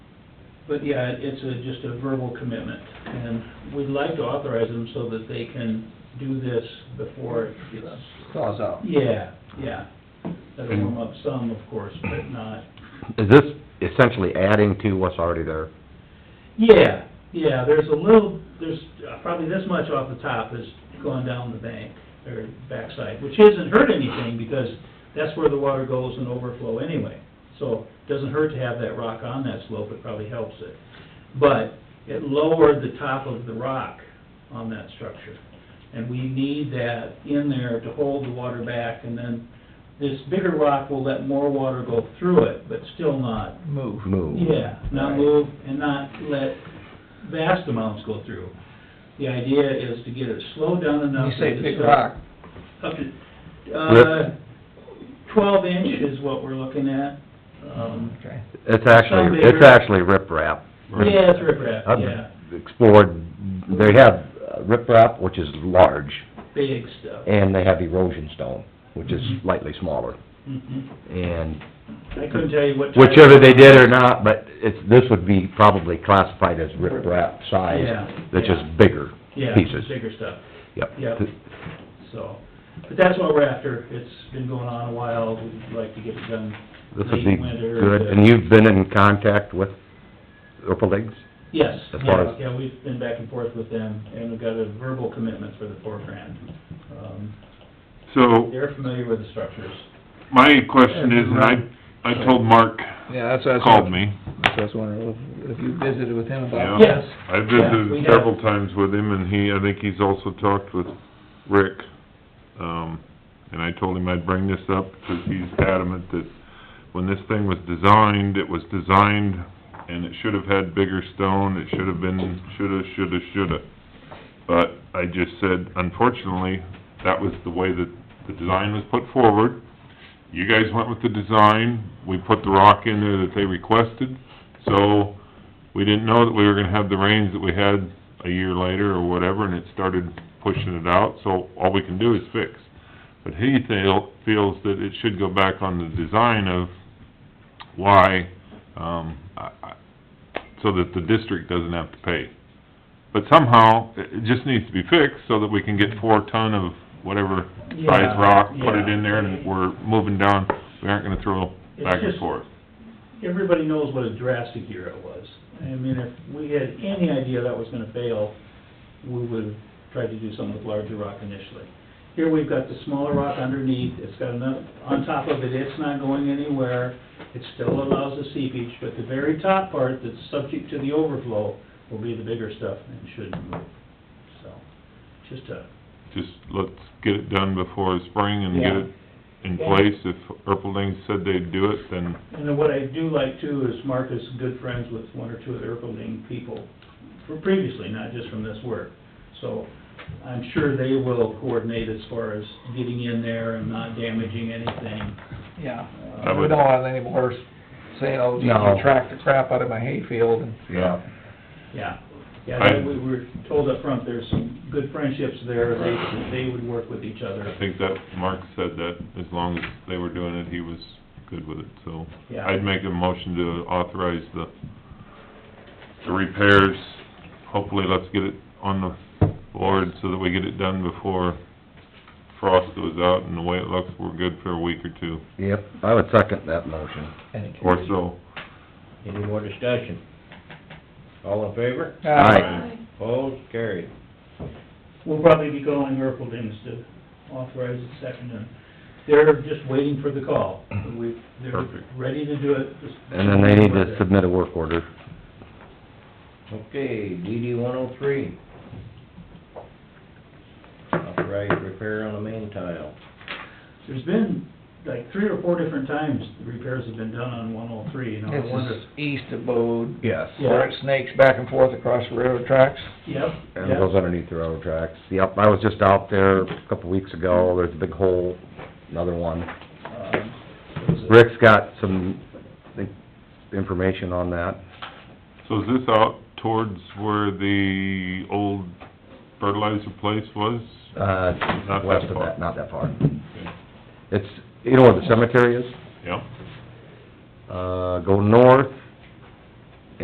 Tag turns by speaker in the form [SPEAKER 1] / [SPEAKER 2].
[SPEAKER 1] But yeah, it- it's a, just a verbal commitment, and we'd like to authorize them so that they can do this before it gets...
[SPEAKER 2] Claws out.
[SPEAKER 1] Yeah, yeah. That'll warm up some, of course, but not...
[SPEAKER 3] Is this essentially adding to what's already there?
[SPEAKER 1] Yeah, yeah, there's a little, there's uh, probably this much off the top is going down the bank, or backside, which isn't hurt anything, because that's where the water goes and overflow anyway. So, it doesn't hurt to have that rock on that slope, it probably helps it. But it lowered the top of the rock on that structure. And we need that in there to hold the water back, and then this bigger rock will let more water go through it, but still not
[SPEAKER 2] Move.
[SPEAKER 3] Move.
[SPEAKER 1] yeah, not
[SPEAKER 2] Right.
[SPEAKER 1] move and not let vast amounts go through. The idea is to get it slowed down
[SPEAKER 2] You
[SPEAKER 1] enough.
[SPEAKER 2] say
[SPEAKER 1] that
[SPEAKER 2] big
[SPEAKER 1] it's up-
[SPEAKER 2] rock,
[SPEAKER 1] Up to, uh, twelve inch is what we're looking at. Um,
[SPEAKER 2] okay.
[SPEAKER 3] It's
[SPEAKER 1] Some
[SPEAKER 3] actually,
[SPEAKER 1] bigger.
[SPEAKER 3] it's actually riprap.
[SPEAKER 1] yeah, it's riprap,
[SPEAKER 3] I've
[SPEAKER 1] yeah,
[SPEAKER 3] Explored, they have uh, riprap, which is large,
[SPEAKER 1] big stuff.
[SPEAKER 3] and they have erosion stone, which is
[SPEAKER 1] Mhm.
[SPEAKER 3] slightly smaller.
[SPEAKER 1] Mhm.
[SPEAKER 3] And
[SPEAKER 1] I couldn't tell you what. type
[SPEAKER 3] whichever
[SPEAKER 1] of-
[SPEAKER 3] they did or not, but it's, this would be probably classified as riprap size,
[SPEAKER 1] Yeah,
[SPEAKER 3] that's
[SPEAKER 1] yeah.
[SPEAKER 3] just bigger
[SPEAKER 1] Yeah,
[SPEAKER 3] pieces.
[SPEAKER 1] bigger stuff,
[SPEAKER 3] Yep.
[SPEAKER 1] Yep. so. But that's what we're after. It's been going on a while. We'd like to get it done
[SPEAKER 3] This would be
[SPEAKER 1] Late winter,
[SPEAKER 3] good,
[SPEAKER 1] the-
[SPEAKER 3] and you've been in contact with Opelings?
[SPEAKER 1] Yes,
[SPEAKER 3] As far
[SPEAKER 1] yeah,
[SPEAKER 3] as-
[SPEAKER 1] yeah, we've been back and forth with them, and we've got a verbal commitment for the four grand. Um,
[SPEAKER 4] So,
[SPEAKER 1] They're familiar with the structures.
[SPEAKER 4] my question is, and I, I told Mark,
[SPEAKER 2] Yeah, that's what I was...
[SPEAKER 4] called me.
[SPEAKER 2] That's what I was wondering, if- if you visited with him about
[SPEAKER 4] Yeah.
[SPEAKER 2] this?
[SPEAKER 1] Yes,
[SPEAKER 4] I
[SPEAKER 1] Yeah, we
[SPEAKER 4] visited
[SPEAKER 1] have.
[SPEAKER 4] several times with him, and he, I think he's also talked with Rick. Um, and I told him I'd bring this up, because he's adamant that when this thing was designed, it was designed, and it should have had bigger stone, it should have been, shoulda, shoulda, shoulda. But I just said, unfortunately, that was the way that the design was put forward. You guys went with the design, we put the rock in there that they requested, so we didn't know that we were gonna have the rains that we had a year later or whatever, and it started pushing it out, so all we can do is fix. But he feel, feels that it should go back on the design of why, um, I, I, so that the district doesn't have to pay. But somehow, it, it just needs to be fixed so that we can get four ton of whatever size
[SPEAKER 1] Yeah,
[SPEAKER 4] rock, put it
[SPEAKER 1] yeah.
[SPEAKER 4] in there, and we're moving down, we aren't gonna throw
[SPEAKER 1] It's
[SPEAKER 4] back and
[SPEAKER 1] just-
[SPEAKER 4] forth.
[SPEAKER 1] Everybody knows what a drastic year it was. I mean, if we had any idea that was gonna fail, we would've tried to do something with larger rock initially. Here we've got the smaller rock underneath, it's got enough, on top of it, it's not going anywhere. It still allows the seepage, but the very top part that's subject to the overflow will be the bigger stuff and shouldn't move. So, just a
[SPEAKER 4] just let's get it done before spring and get
[SPEAKER 1] Yeah.
[SPEAKER 4] it in
[SPEAKER 1] Yeah.
[SPEAKER 4] place. If Erpelding said they'd do it, then,
[SPEAKER 1] And then what I do like too is Mark is good friends with one or two of the Erpelding people, for previously, not just from this work. So I'm sure they will coordinate as far as getting in there and not damaging anything. Uh,
[SPEAKER 2] Yeah.
[SPEAKER 4] I
[SPEAKER 2] We
[SPEAKER 4] would-
[SPEAKER 2] don't want any more saying, oh, geez,
[SPEAKER 3] No.
[SPEAKER 2] you tracked the crap out of my hayfield and...
[SPEAKER 3] Yeah.
[SPEAKER 1] Yeah, yeah,
[SPEAKER 4] I-
[SPEAKER 1] that we were told up front. there's some good friendships there, they, they would work with each
[SPEAKER 4] I
[SPEAKER 1] other.
[SPEAKER 4] think that, Mark said that as long as they were doing it, he was good with it, so.
[SPEAKER 1] Yeah.
[SPEAKER 4] I'd make a motion to authorize the, the repairs. Hopefully, let's get it on the board so that we get it done before frost goes out, and the way it looks, we're good for a week or two,
[SPEAKER 3] Yep, I would second that motion.
[SPEAKER 4] or so.
[SPEAKER 5] Any more discussion? All in favor?
[SPEAKER 2] Uh,
[SPEAKER 3] Aye.
[SPEAKER 5] Opposed, carried.
[SPEAKER 1] We'll probably be calling Erpeldings to authorize it second, and they're just waiting for the call. We, they're
[SPEAKER 4] Perfect.
[SPEAKER 1] ready to do it. just-
[SPEAKER 3] And then they need to submit a work order.
[SPEAKER 5] Okay, DD one oh three. Authorized repair on the main tile.
[SPEAKER 1] There's been like three or four different times the repairs have been done on one oh three, and I
[SPEAKER 2] This
[SPEAKER 1] wonder.
[SPEAKER 2] is east of Bode,
[SPEAKER 3] Yes.
[SPEAKER 2] where it snakes back and forth across the railroad tracks.
[SPEAKER 1] Yep,
[SPEAKER 3] And it
[SPEAKER 1] yep,
[SPEAKER 3] goes underneath the railroad tracks. Yep, I was just out there a couple weeks ago, there's a big hole, another one.
[SPEAKER 1] um, what is it?
[SPEAKER 3] Rick's got some I think, information on that.
[SPEAKER 4] So is this out towards where the old fertilizer place was?
[SPEAKER 3] Uh,
[SPEAKER 4] Not that
[SPEAKER 3] west of
[SPEAKER 4] far.
[SPEAKER 3] that, not that far. It's, you know where the cemetery is?
[SPEAKER 4] Yep.
[SPEAKER 3] Uh, go north,